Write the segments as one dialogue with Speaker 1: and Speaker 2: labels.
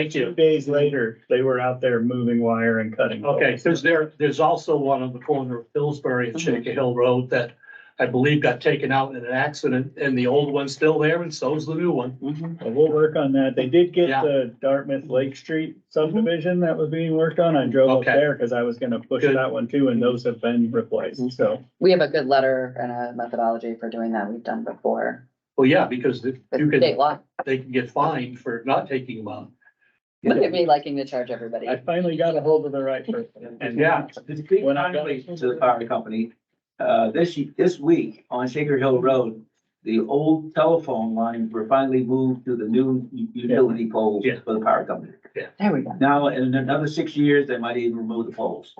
Speaker 1: Thank you.
Speaker 2: Days later, they were out there moving wire and cutting.
Speaker 1: Okay, because there, there's also one on the corner of Pillsbury
Speaker 2: Mm-hmm.
Speaker 1: and Shaker Hill Road that I believe got taken out in an accident and the old one's still there and so's the new one.
Speaker 2: Well, We'll work on that. They did get
Speaker 1: Yeah.
Speaker 2: the Dartmouth Lake Street subdivision that was being worked on. I drove up
Speaker 1: Okay.
Speaker 2: there because I was gonna push
Speaker 1: Good.
Speaker 2: that one too, and those have been replaced, so.
Speaker 3: We have a good letter and a methodology for doing that. We've done before.
Speaker 1: Well, yeah, because if you
Speaker 3: With state
Speaker 1: can,
Speaker 3: law.
Speaker 1: they can get fined for not taking them out.
Speaker 3: Look at me liking to charge everybody.
Speaker 2: I finally got a hold of the right person.
Speaker 1: And yeah,
Speaker 4: Just big
Speaker 2: When I got-
Speaker 4: kindly to the power company, uh, this, ye- this week on Shaker Hill Road, the old telephone lines were finally moved to the new u- utility poles
Speaker 1: Yeah.
Speaker 4: for the power company.
Speaker 3: There we go.
Speaker 4: Now, in another six years, they might even remove the poles.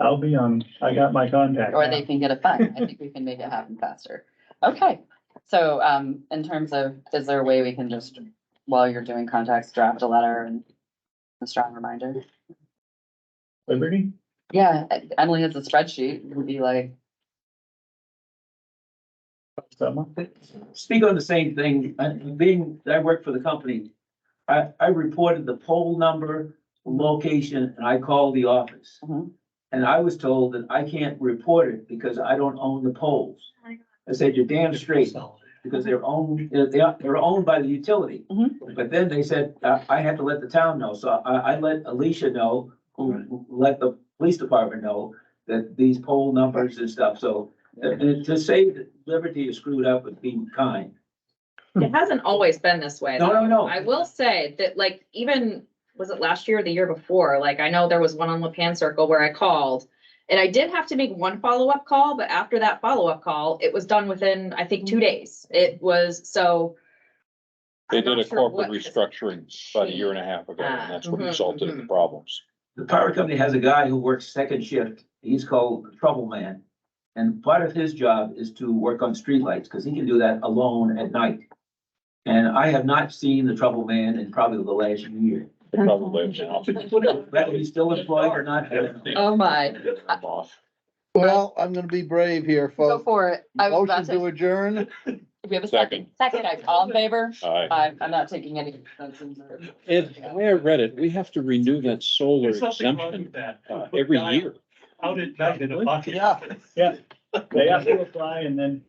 Speaker 2: I'll be on, I got my contact.
Speaker 3: Or
Speaker 2: now.
Speaker 3: they can get a fine. I think we can make it happen faster. Okay, so um, in terms of, is there a way we can just, while you're doing contacts, draft a letter and a strong reminder?
Speaker 2: Liberty?
Speaker 3: Yeah, Emily has a spreadsheet. It would be like,
Speaker 2: Someone?
Speaker 4: Speak on the same thing, uh, being, I work for the company. I, I reported the pole number, location, and I called the office.
Speaker 3: Mhm.
Speaker 4: And I was told that I can't report it because I don't own the poles.
Speaker 3: Oh
Speaker 4: I said, you're damn straight. because they're owned, they're, they are- they're owned by the utility.
Speaker 5: Mm-hmm.
Speaker 3: Mhm.
Speaker 4: But then they said, uh, I had to let the town know, so I, I let Alicia know, who let the police department know that these poll numbers and stuff, so uh, and to say that Liberty is screwed up would be kind.
Speaker 5: It hasn't always been this way.
Speaker 4: No,
Speaker 5: though.
Speaker 4: no, no.
Speaker 5: I will say that like even, was it last year or the year before? Like I know there was one on Lapan Circle where I called. And I did have to make one follow-up call, but after that follow-up call, it was done within, I think, two days. It was so.
Speaker 6: Mm-hmm. They
Speaker 5: I'm
Speaker 6: did a
Speaker 5: not sure
Speaker 6: corporate
Speaker 5: what-
Speaker 6: restructuring about a year and a half ago,
Speaker 5: Ah,
Speaker 6: and that's what
Speaker 5: mhm,
Speaker 6: resulted in the
Speaker 5: mhm.
Speaker 6: problems.
Speaker 4: The power company has a guy who works second shift, he's called the Trouble Man. And part of his job is to work on streetlights, because he can do that alone at night. And I have not seen the Trouble Man in probably the last year.
Speaker 6: They probably have now.
Speaker 4: Whether he's still employed or not, I don't know.
Speaker 3: oh my,
Speaker 6: I'm off.
Speaker 7: Well, I'm gonna be brave here,
Speaker 3: go
Speaker 7: folks.
Speaker 3: for it. I was about
Speaker 7: Motion to
Speaker 3: to,
Speaker 7: adjourn.
Speaker 3: we have a second. Second. Okay, All in favor?
Speaker 6: Aye.
Speaker 3: i I'm not taking any. offense.
Speaker 6: If, the way I read it, we have to renew that solar
Speaker 1: There's nothing wrong
Speaker 6: exemption
Speaker 1: with that.
Speaker 6: uh, every year.
Speaker 1: Out at night in a bucket.
Speaker 7: Yeah.
Speaker 2: They have to apply and then